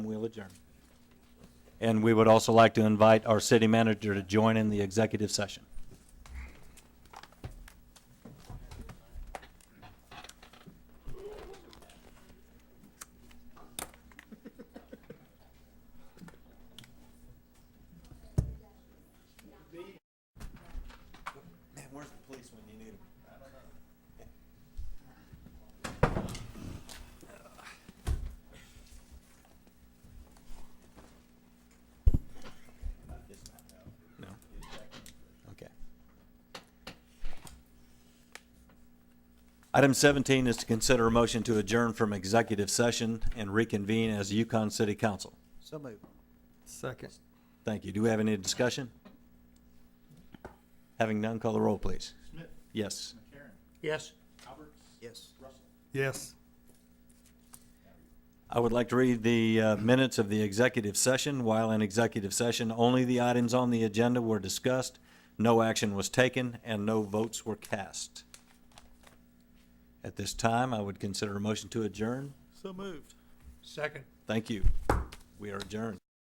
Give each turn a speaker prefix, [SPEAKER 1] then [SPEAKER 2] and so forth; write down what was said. [SPEAKER 1] adjourn.
[SPEAKER 2] And we would also like to invite our city manager to join in the executive session. Man, where's the police when you need them? No? Okay. Item 17 is to consider a motion to adjourn from executive session and reconvene as Yukon City Council.
[SPEAKER 1] So moved.
[SPEAKER 3] Second.
[SPEAKER 2] Thank you. Do we have any discussion? Having none, call the roll, please. Smith? Yes.
[SPEAKER 1] Yes. Yes.
[SPEAKER 3] Yes.
[SPEAKER 2] I would like to read the uh, minutes of the executive session. While in executive session, only the items on the agenda were discussed, no action was taken, and no votes were cast. At this time, I would consider a motion to adjourn.
[SPEAKER 1] So moved.
[SPEAKER 3] Second.
[SPEAKER 2] Thank you. We are adjourned.